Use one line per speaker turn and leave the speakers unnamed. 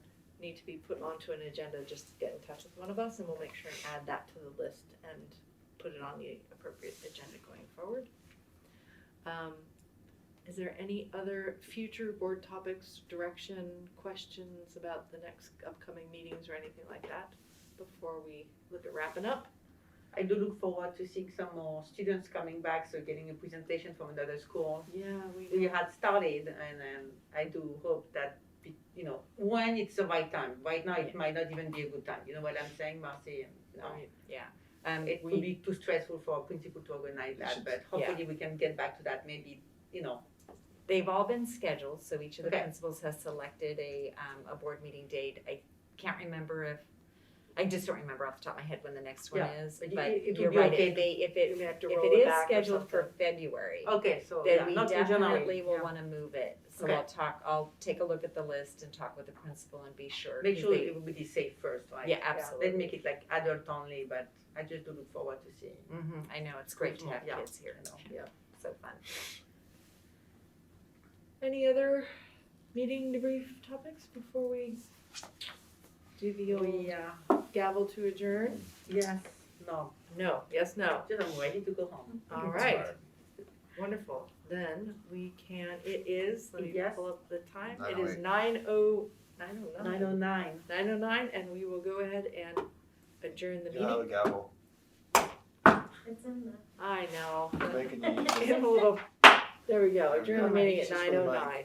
need to be put onto an agenda, just get in touch with one of us and we'll make sure and add that to the list and put it on the appropriate agenda going forward. Um, is there any other future board topics, direction, questions about the next upcoming meetings or anything like that before we look at wrapping up?
I do look forward to seeing some more students coming back, so getting a presentation from another school.
Yeah, we,
We had started, and um, I do hope that, be- you know, when it's the right time. Right now, it might not even be a good time. You know what I'm saying, Marcy? No.
yeah,
Um, it
We-
would be too stressful for a principal to organize that, but hopefully we can get back to that maybe, you know,
They've all been scheduled, so each of the
Okay.
principals has selected a, um, a board meeting date. I can't remember if, I just don't remember off the top of my head when the next one is,
but
but
it- it would
you're
be
right,
okay.
if they, if it,
we may have to
if
roll
it is
back or
scheduled
something.
for February,
okay, so Oh, yeah,
then we
not till January.
definitely will
Yeah.
wanna move it. So
Okay.
I'll talk, I'll take a look at the list and talk with the principal and be sure.
Make
'cause
sure
they-
it will be safe first, right?
Yeah,
Then
absolutely.
make it like adult only, but I just do look forward to seeing,
hmm I know, it's great to have
Yeah.
kids here,
you know, yeah.
so fun.
Any other meeting debrief topics before we do the old
We, uh,
gavel to adjourn?
yes, no,
No, yes, no.
just I'm ready to go home.
All right, wonderful. Then we can, it is, let me
Yes.
pull up the time. It is nine oh, nine oh
Nine
nine.
oh nine.
Nine oh nine, and we will go ahead and adjourn the
Get out
meeting.
of the gavel.
It's in the
I know.
Making you use it.
In a little- There we go, adjourn the meeting at
Just
nine
for
oh
mine.
nine.